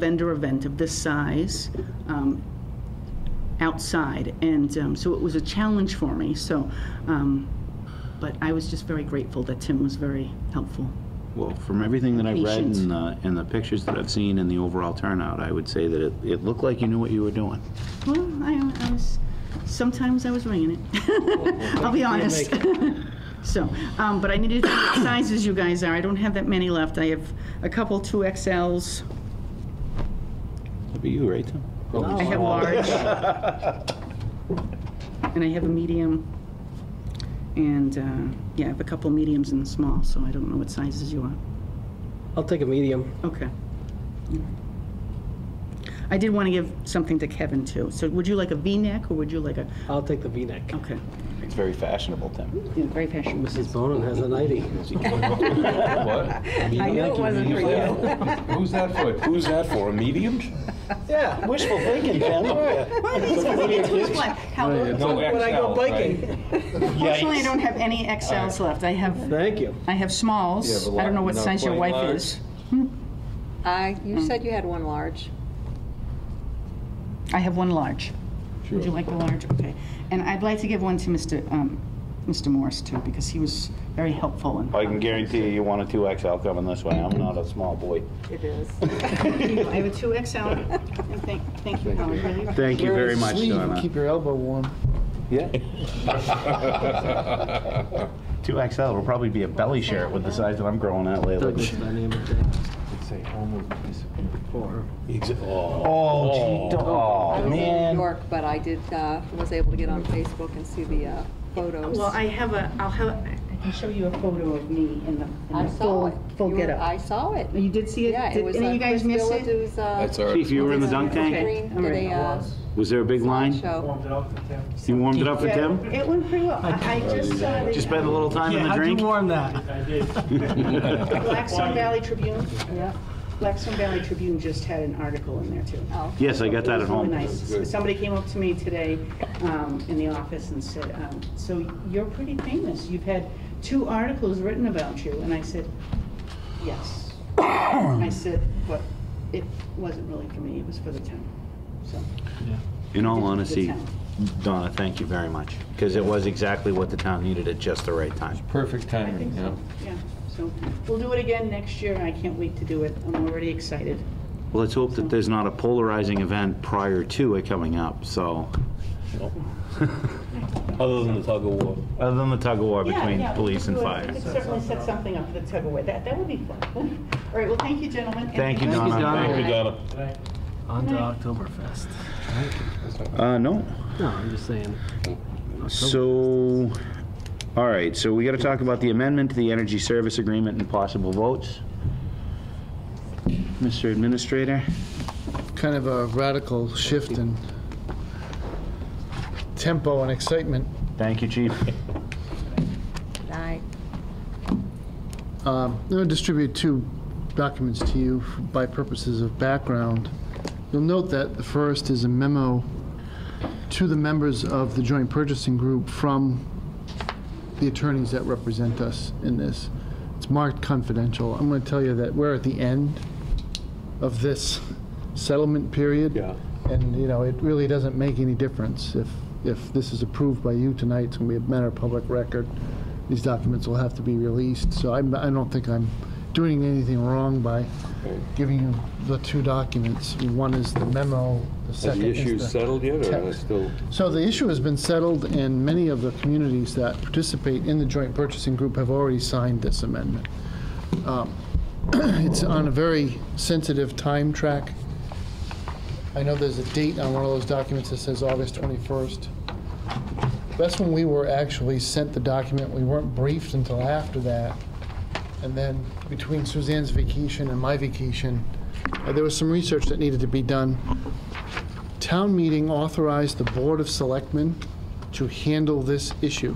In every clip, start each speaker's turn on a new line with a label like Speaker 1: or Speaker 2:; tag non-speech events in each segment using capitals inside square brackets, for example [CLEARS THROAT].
Speaker 1: vendor event of this size um, outside. And um, so it was a challenge for me, so, um, but I was just very grateful that Tim was very helpful.
Speaker 2: Well, from everything that I've read
Speaker 1: Patience.
Speaker 2: and the, and the pictures that I've seen and the overall turnout, I would say that it, it looked like you knew what you were doing.
Speaker 1: Well, I, I was, sometimes I was winging it. [LAUGHS] I'll be honest. [LAUGHS] So, um, but I needed to know what sizes you guys are. I don't have that many left. I have a couple two XLs.
Speaker 2: That'd be you, right, Tim?
Speaker 1: I
Speaker 3: Oh.
Speaker 1: have large. And I have a medium. And, uh, yeah, I have a couple mediums and small, so I don't know what sizes you are.
Speaker 3: I'll take a medium.
Speaker 1: Okay. I did want to give something to Kevin, too. So would you like a V-neck, or would you like a,
Speaker 3: I'll take the V-neck.
Speaker 1: okay.
Speaker 2: It's very fashionable, Tim.
Speaker 1: Yeah, Very fashionable.
Speaker 3: Mrs. Bonin has a 90.
Speaker 4: What?
Speaker 5: I knew it wasn't for you.
Speaker 4: Who's that for? Who's that for? A medium?
Speaker 3: Yeah, wishful thinking, [LAUGHS] Jen.
Speaker 4: No
Speaker 3: When I go
Speaker 4: XL, right?
Speaker 3: biking.
Speaker 1: Fortunately, I don't have any XLs left. I have,
Speaker 3: Thank you.
Speaker 1: I have
Speaker 4: You have
Speaker 1: smalls.
Speaker 4: a
Speaker 1: I don't know
Speaker 4: lot-
Speaker 1: what
Speaker 4: not
Speaker 1: size your
Speaker 4: quite
Speaker 1: wife
Speaker 4: large.
Speaker 1: is.
Speaker 5: I, Uh, you said you had one large.
Speaker 1: I have one large. Would you
Speaker 4: Sure.
Speaker 1: like the large? Okay. And I'd like to give one to Mr. um, Mr. Morris, too, because he was very helpful and...
Speaker 2: I
Speaker 1: [LAUGHS]
Speaker 2: can guarantee you, you want a two XL coming this way. I'm not a small boy.
Speaker 5: It is.
Speaker 1: I have a
Speaker 2: [LAUGHS]
Speaker 1: 2XL, and thank, thank you, Howard, really.
Speaker 2: Thank you very much,
Speaker 6: Sleeve and
Speaker 2: Donna.
Speaker 6: Keep your elbow warm.
Speaker 2: Yeah. [LAUGHS] Two XL will probably be a belly shirt with the size that I'm growing out lately.
Speaker 3: Douglas by name of day. Or-
Speaker 2: Oh, gee, oh,
Speaker 5: I was in New
Speaker 2: man.
Speaker 5: York, but I did, uh, was able to get on Facebook and see the uh, photos.
Speaker 1: Well, I have a, I'll have, I can show you a photo of me in the
Speaker 5: I
Speaker 1: in the
Speaker 5: saw
Speaker 1: full,
Speaker 5: it.
Speaker 1: full
Speaker 5: You were-
Speaker 1: getup.
Speaker 5: I saw it.
Speaker 1: You did see
Speaker 5: Yeah,
Speaker 1: it?
Speaker 5: it
Speaker 1: Did
Speaker 5: was
Speaker 1: any of
Speaker 5: uh,
Speaker 1: you guys
Speaker 5: Chris
Speaker 1: miss it?
Speaker 5: Villadue's, uh,
Speaker 4: That's our.
Speaker 2: Chief, you were in the dunk tank?
Speaker 5: screen
Speaker 1: I'm
Speaker 5: did
Speaker 1: ready.
Speaker 5: a uh,
Speaker 2: Was there a big line?
Speaker 5: show.
Speaker 2: You warmed it up for Tim?
Speaker 1: It went pretty well. I I just saw
Speaker 2: Just
Speaker 1: the
Speaker 2: spend a little time in
Speaker 3: Yeah,
Speaker 2: the
Speaker 3: how'd you
Speaker 2: drink?
Speaker 3: warm that?
Speaker 1: uh, Blackstone Valley Tribune. Blackstone Valley Tribune just had an article in there, too.
Speaker 5: Oh.
Speaker 2: Yes, I got that at
Speaker 1: It
Speaker 2: home.
Speaker 1: was really nice. Somebody came up to me today um, in the office and said, um, so you're pretty famous. You've had two articles written about you. And I said, yes. I said, but it wasn't really for me, it was for the town, so.
Speaker 2: In all honesty, Donna, thank you very much, because it was exactly what the town needed at just the right time.
Speaker 4: Perfect
Speaker 1: I
Speaker 4: timing,
Speaker 1: think
Speaker 4: yeah.
Speaker 1: so, yeah. So we'll do it again next year. I can't wait to do it. I'm already excited.
Speaker 2: Well, let's hope that there's not a polarizing event prior to it coming up, so,
Speaker 4: Other than the tug of war.
Speaker 2: other than the tug of war
Speaker 1: Yeah,
Speaker 2: between
Speaker 1: yeah, we
Speaker 2: police
Speaker 1: could
Speaker 2: and
Speaker 1: do it.
Speaker 2: fire.
Speaker 1: We could certainly set something up for the tug of war. That, that would be fun. [LAUGHS] All right, well, thank you, gentlemen. And
Speaker 2: Thank you,
Speaker 1: guys-
Speaker 2: Donna.
Speaker 4: Thank you, Donna.
Speaker 3: On to Oktoberfest.
Speaker 2: Uh, no,
Speaker 3: No, I'm just saying.
Speaker 2: so, all right, so we got to talk about the amendment to the energy service agreement and possible votes. Mr. Administrator?
Speaker 6: Kind of a radical shift in tempo and excitement.
Speaker 2: Thank you, Chief.
Speaker 5: I
Speaker 6: Um, I'm going to distribute two documents to you f- by purposes of background. You'll note that the first is a memo to the members of the joint purchasing group from the attorneys that represent us in this. It's marked confidential. I'm going to tell you that we're at the end of this settlement period.
Speaker 4: Yeah.
Speaker 6: And, you know, it really doesn't make any difference if, if this is approved by you tonight, it's going to be a matter of public record. These documents will have to be released, so I'm, I don't think I'm doing anything wrong by giving you the two documents. One is the memo, the
Speaker 4: Has
Speaker 6: second
Speaker 4: the
Speaker 6: is the...
Speaker 4: issue settled yet, or is
Speaker 6: text.
Speaker 4: it still?
Speaker 6: So the issue has been settled, and many of the communities that participate in the joint purchasing group have already signed this amendment. Um, [CLEARS THROAT] It's on a very sensitive time track. I know there's a date on one of those documents that says August 21st. That's when we were actually sent the document. We weren't briefed until after that. And then between Suzanne's vacation and my vacation, uh, there was some research that needed to be done town meeting authorized the Board of Selectmen to handle this issue.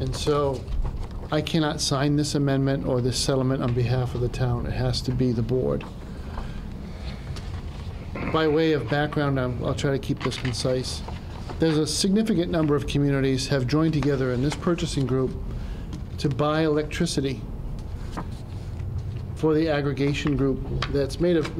Speaker 6: And so I cannot sign this amendment or this settlement on behalf of the town. It has to be the board. By way of background, I'm- I'll try to keep this concise. There's a significant number of communities have joined together in this purchasing group to buy electricity for the aggregation group that's made of